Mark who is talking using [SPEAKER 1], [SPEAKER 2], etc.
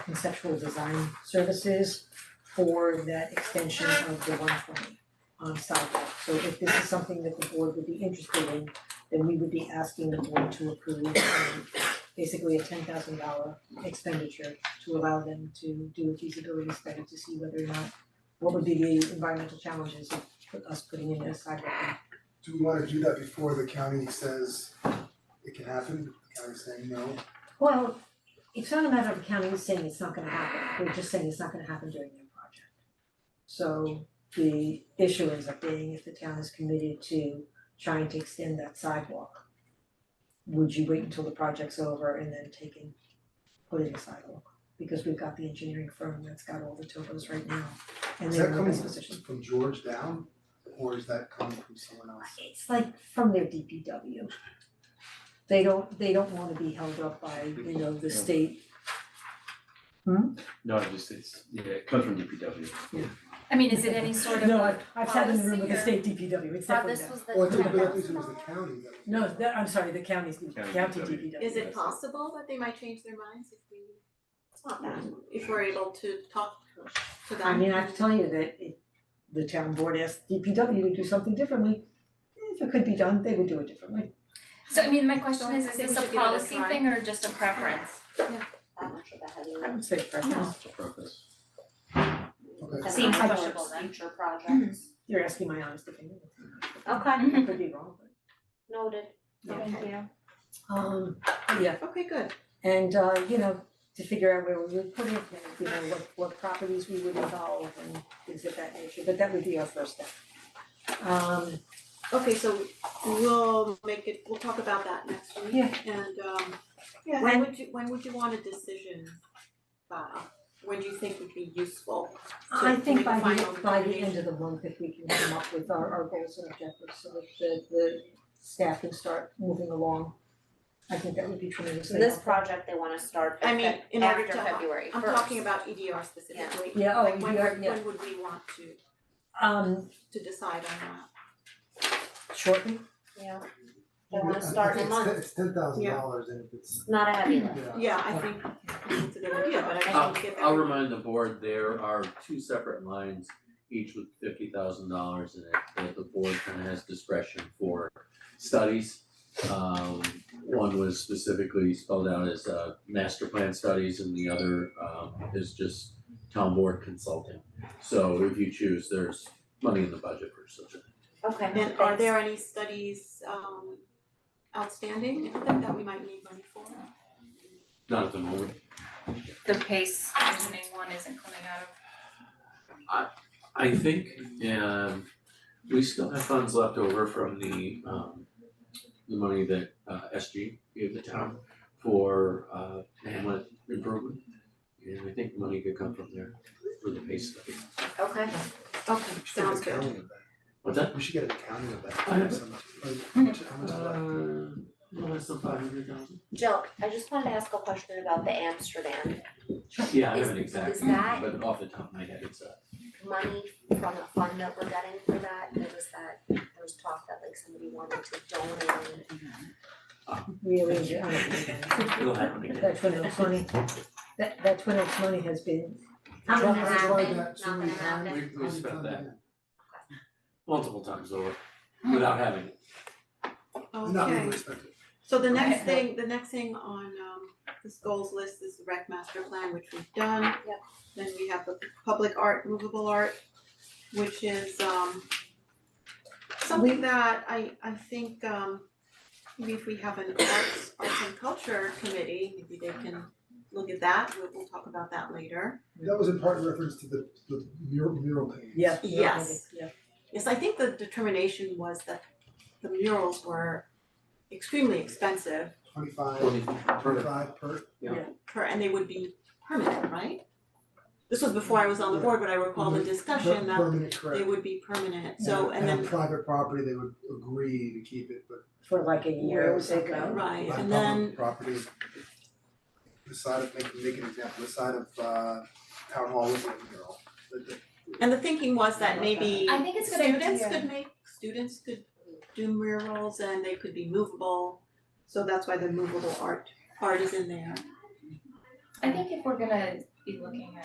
[SPEAKER 1] conceptual design services for that extension of the one twenty on sidewalk. So if this is something that the board would be interested in, then we would be asking the board to approve um, basically a ten thousand dollar expenditure to allow them to do a feasibility study to see whether or not what would be the environmental challenges of put- us putting in a sidewalk.
[SPEAKER 2] Do we wanna do that before the county says it can happen, the county's saying no?
[SPEAKER 1] Well, it's not a matter of counting saying it's not gonna happen, we're just saying it's not gonna happen during their project. So the issue ends up being if the town is committed to trying to extend that sidewalk, would you wait until the project's over and then take and put in a sidewalk? Because we've got the engineering firm that's got all the topos right now and
[SPEAKER 2] Is
[SPEAKER 1] they're
[SPEAKER 2] that
[SPEAKER 1] in the
[SPEAKER 2] coming
[SPEAKER 1] best position.
[SPEAKER 2] from George down, or is that coming from someone else?
[SPEAKER 1] It's like from their DPW. They don't, they don't wanna be held up by, you know, the state
[SPEAKER 3] No, it just it's, yeah, it comes from DPW.
[SPEAKER 4] I mean, is it any sort of
[SPEAKER 1] No,
[SPEAKER 4] a
[SPEAKER 1] I've I've sat in the room with the
[SPEAKER 4] policy
[SPEAKER 1] state DPW, it's
[SPEAKER 4] or- Oh,
[SPEAKER 1] definitely
[SPEAKER 4] this
[SPEAKER 1] that.
[SPEAKER 4] was the
[SPEAKER 2] Well, I think, but I
[SPEAKER 4] 10,000
[SPEAKER 2] think it was the county that.
[SPEAKER 1] No, that, I'm sorry, the county's, the
[SPEAKER 3] County
[SPEAKER 1] county
[SPEAKER 3] DPW.
[SPEAKER 1] DPW.
[SPEAKER 5] Is it
[SPEAKER 3] Yes.
[SPEAKER 5] possible that they might change their minds if we, it's not bad, if we're able to talk to them?
[SPEAKER 1] Mm-hmm. I mean, I have to tell you that if the town board asked DPW to do something differently, if it could be done, they would do it differently.
[SPEAKER 4] So I mean, my question is,
[SPEAKER 5] I
[SPEAKER 4] is
[SPEAKER 5] think
[SPEAKER 4] this
[SPEAKER 5] we
[SPEAKER 4] a
[SPEAKER 5] should give it a
[SPEAKER 4] policy
[SPEAKER 5] try.
[SPEAKER 4] thing or just a preference?
[SPEAKER 6] I'm not sure about how they
[SPEAKER 1] I
[SPEAKER 6] would.
[SPEAKER 1] would say preference,
[SPEAKER 3] It's a purpose.
[SPEAKER 2] Okay,
[SPEAKER 6] That's
[SPEAKER 4] Seems
[SPEAKER 6] not how
[SPEAKER 4] questionable
[SPEAKER 6] it's
[SPEAKER 4] then.
[SPEAKER 6] Future projects.
[SPEAKER 1] you're asking my honest opinion,
[SPEAKER 6] Hmm, Okay,
[SPEAKER 1] I could be wrong, but.
[SPEAKER 6] noted.
[SPEAKER 5] Okay.
[SPEAKER 4] you.
[SPEAKER 1] Um, yeah,
[SPEAKER 5] Okay, good.
[SPEAKER 1] and uh, you know, to figure out where we would put it, and you know, what what properties we would involve and things of that nature, but that would be our first step. Um,
[SPEAKER 5] Okay, so we'll make it, we'll talk about that next week.
[SPEAKER 1] Yeah.
[SPEAKER 5] And um, yeah,
[SPEAKER 1] When-
[SPEAKER 5] when would you, when would you want a decision by? When do you think would be useful? to-
[SPEAKER 1] I
[SPEAKER 5] to
[SPEAKER 1] think
[SPEAKER 5] make a
[SPEAKER 1] by the,
[SPEAKER 5] final
[SPEAKER 1] by the end
[SPEAKER 5] determination?
[SPEAKER 1] of the month, if we can come up with our, our goals and objectives, so that the, the staff can start moving along. I think that would be
[SPEAKER 6] So
[SPEAKER 1] tremendously
[SPEAKER 6] this
[SPEAKER 1] helpful.
[SPEAKER 6] project, they wanna start
[SPEAKER 5] I mean,
[SPEAKER 6] after
[SPEAKER 5] in order to help-
[SPEAKER 6] February first.
[SPEAKER 5] I'm talking about EDR specifically.
[SPEAKER 1] Yeah, oh,
[SPEAKER 5] Like when
[SPEAKER 1] EDR,
[SPEAKER 5] would-
[SPEAKER 1] yeah.
[SPEAKER 5] when would we want to
[SPEAKER 1] Um,
[SPEAKER 5] to decide on that?
[SPEAKER 1] shortly,
[SPEAKER 6] Yeah, they wanna start in a
[SPEAKER 2] It's ten-
[SPEAKER 6] month,
[SPEAKER 2] It's ten thousand
[SPEAKER 5] Yeah.
[SPEAKER 2] dollars and if it's,
[SPEAKER 6] It's not a heavy lift.
[SPEAKER 2] yeah,
[SPEAKER 5] Yeah, I think it's a good idea, but I
[SPEAKER 3] I'll,
[SPEAKER 5] think we get that.
[SPEAKER 3] I'll remind the board, there are two separate lines, each with fifty thousand dollars in it, that the board kind of has discretion for studies. Um, one was specifically spelled out as, uh, master plan studies and the other, um, is just town board consulting. So if you choose, there's money in the budget for such a
[SPEAKER 6] Okay,
[SPEAKER 5] And are
[SPEAKER 6] thanks.
[SPEAKER 5] there any studies um outstanding that that we might need money for?
[SPEAKER 3] Not at the moment.
[SPEAKER 4] The pace reasoning one isn't coming out of.
[SPEAKER 3] I think, um, we still have funds left over from the, um, the money that, uh, SG gave the town for, uh, Hamlet improvement. And I think money could come from there for the pace study.
[SPEAKER 6] Okay,
[SPEAKER 5] Okay,
[SPEAKER 2] we should get
[SPEAKER 5] sounds
[SPEAKER 2] an
[SPEAKER 5] good.
[SPEAKER 2] accounting of that.
[SPEAKER 3] What's that?
[SPEAKER 2] We should get an accounting of that, How
[SPEAKER 3] I know.
[SPEAKER 2] much- like, how much,
[SPEAKER 3] Hmm.
[SPEAKER 2] how much
[SPEAKER 3] Uh,
[SPEAKER 2] is left?
[SPEAKER 3] less than five hundred thousand.
[SPEAKER 6] Jill, I just wanted to ask a question about the Amsterdam
[SPEAKER 3] Yeah, I
[SPEAKER 6] Is- is
[SPEAKER 3] haven't exactly,
[SPEAKER 6] that-
[SPEAKER 3] but off the top of my head, it's, uh,
[SPEAKER 6] money from the fund that we're getting for that, there was that, there was talk that like somebody wanted to donate.
[SPEAKER 1] really, I don't think that-
[SPEAKER 3] it'll happen again.
[SPEAKER 1] that Twin Oaks money, that that Twin Oaks money has been,
[SPEAKER 6] Not gonna
[SPEAKER 2] Trump has tried
[SPEAKER 6] happen,
[SPEAKER 2] that so
[SPEAKER 6] not
[SPEAKER 2] many
[SPEAKER 6] gonna
[SPEAKER 2] times,
[SPEAKER 6] happen.
[SPEAKER 3] We- we
[SPEAKER 2] how many
[SPEAKER 3] spent
[SPEAKER 2] times
[SPEAKER 3] that.
[SPEAKER 2] again?
[SPEAKER 3] Multiple times over, without having it.
[SPEAKER 2] Not
[SPEAKER 5] Okay,
[SPEAKER 2] really spent it.
[SPEAKER 5] so the next thing, the next thing on um this goals list is the rec master plan, which we've done.
[SPEAKER 6] Yep.
[SPEAKER 5] Then we have the public art, movable art, which is um something that I I think um maybe if we have an arts arts and culture committee, maybe they can look at that, we'll we'll talk about that later.
[SPEAKER 2] That was in part in reference to the, the mural, mural paintings.
[SPEAKER 1] yeah, yeah,
[SPEAKER 5] Yes.
[SPEAKER 1] yeah,
[SPEAKER 5] Yes, I think the determination was that the murals were extremely expensive
[SPEAKER 2] Twenty-five,
[SPEAKER 3] Twenty,
[SPEAKER 2] twenty-five per,
[SPEAKER 5] per, and they would be permanent, right? This was before I was on the board, but I recall the
[SPEAKER 2] Mm-hmm. per,
[SPEAKER 5] discussion that
[SPEAKER 2] permanent, correct.
[SPEAKER 5] they would be permanent, so, and
[SPEAKER 2] on
[SPEAKER 5] then,
[SPEAKER 2] private property, they would agree to keep it, but
[SPEAKER 1] for like a year or
[SPEAKER 2] Where's
[SPEAKER 1] so
[SPEAKER 2] it
[SPEAKER 1] ago.
[SPEAKER 5] right,
[SPEAKER 2] on
[SPEAKER 5] and
[SPEAKER 2] public
[SPEAKER 5] then,
[SPEAKER 2] property. The side of, make, make an example, the side of, uh, town hall was a mural, the, the
[SPEAKER 5] and the thinking was that maybe
[SPEAKER 4] I think it's a good
[SPEAKER 5] students
[SPEAKER 4] idea.
[SPEAKER 5] could make, students could do murals and they could be movable, so that's why the movable art, art is in there.
[SPEAKER 4] I think if we're gonna be looking at